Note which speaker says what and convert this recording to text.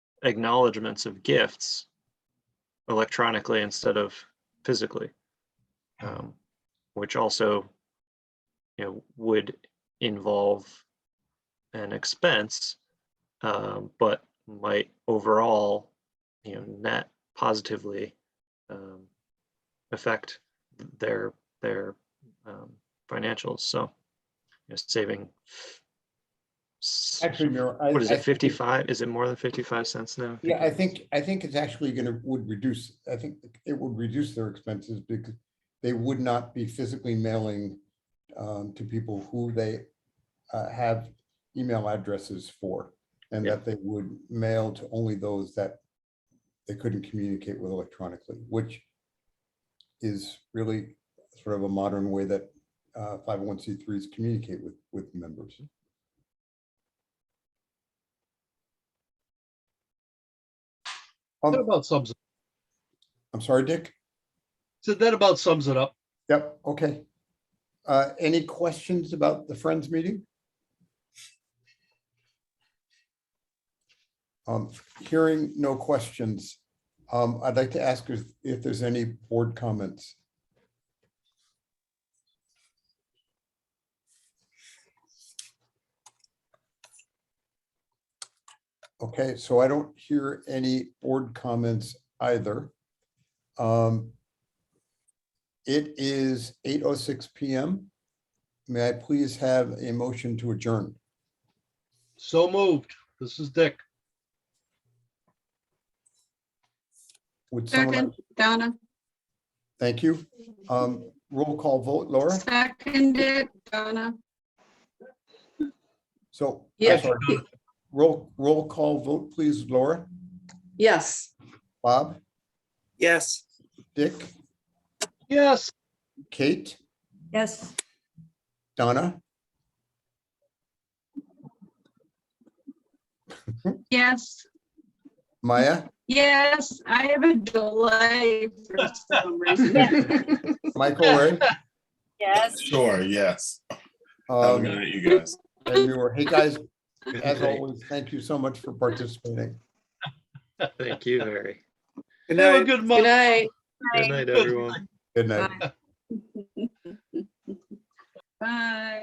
Speaker 1: acknowledgements of gifts electronically instead of physically. Um, which also, you know, would involve an expense, um, but might overall, you know, net positively um, affect their their um, financials. So, you know, saving. s-
Speaker 2: Actually, no. I-
Speaker 1: What is
Speaker 2: I
Speaker 1: it,
Speaker 2: think-
Speaker 1: fifty-five? Is it more than fifty-five cents now?
Speaker 2: Yeah, I think, I think it's actually gonna, would reduce, I think it would reduce their expenses because they would not be physically mailing um, to people who they uh, have email addresses for, and
Speaker 1: Yeah.
Speaker 2: that they would mail to only those that they couldn't communicate with electronically, which is really sort of a modern way that five oh one C threes communicate with, with members.
Speaker 3: That
Speaker 2: Um,
Speaker 3: about sums,
Speaker 2: I'm sorry, Dick?
Speaker 3: so that about sums it up.
Speaker 2: Yep, okay. Uh, Any questions about the Friends meeting? Um, Hearing no questions, um, I'd like to ask if if there's any board comments. Okay, so I don't hear any board comments either. Um, it is eight oh six PM. May I please have a motion to adjourn?
Speaker 3: So moved. This is Dick.
Speaker 2: Would someone, like-
Speaker 4: Second, Donna,
Speaker 2: thank you. Um, roll call vote, Laura.
Speaker 4: seconded, Donna,
Speaker 2: So. I'm
Speaker 5: Yeah.
Speaker 2: sorry. Roll, roll call vote, please, Laura,
Speaker 5: Yes.
Speaker 2: Bob,
Speaker 6: Yes.
Speaker 2: Dick,
Speaker 3: Yes.
Speaker 2: Kate,
Speaker 5: Yes.
Speaker 2: Donna,
Speaker 4: yes,
Speaker 2: Maya,
Speaker 4: yes, I have a delay for some reason.
Speaker 2: Michael, Ray.
Speaker 7: Yes.
Speaker 6: Sure, yes. Have a
Speaker 2: Um,
Speaker 6: good night, you guys.
Speaker 2: and you were, hey, guys, as always, thank you so much for participating.
Speaker 1: Thank you, Harry.
Speaker 6: Good
Speaker 3: Have a good
Speaker 5: Good
Speaker 3: month.
Speaker 5: night.
Speaker 1: Good night, everyone.
Speaker 2: Good night.
Speaker 4: Bye.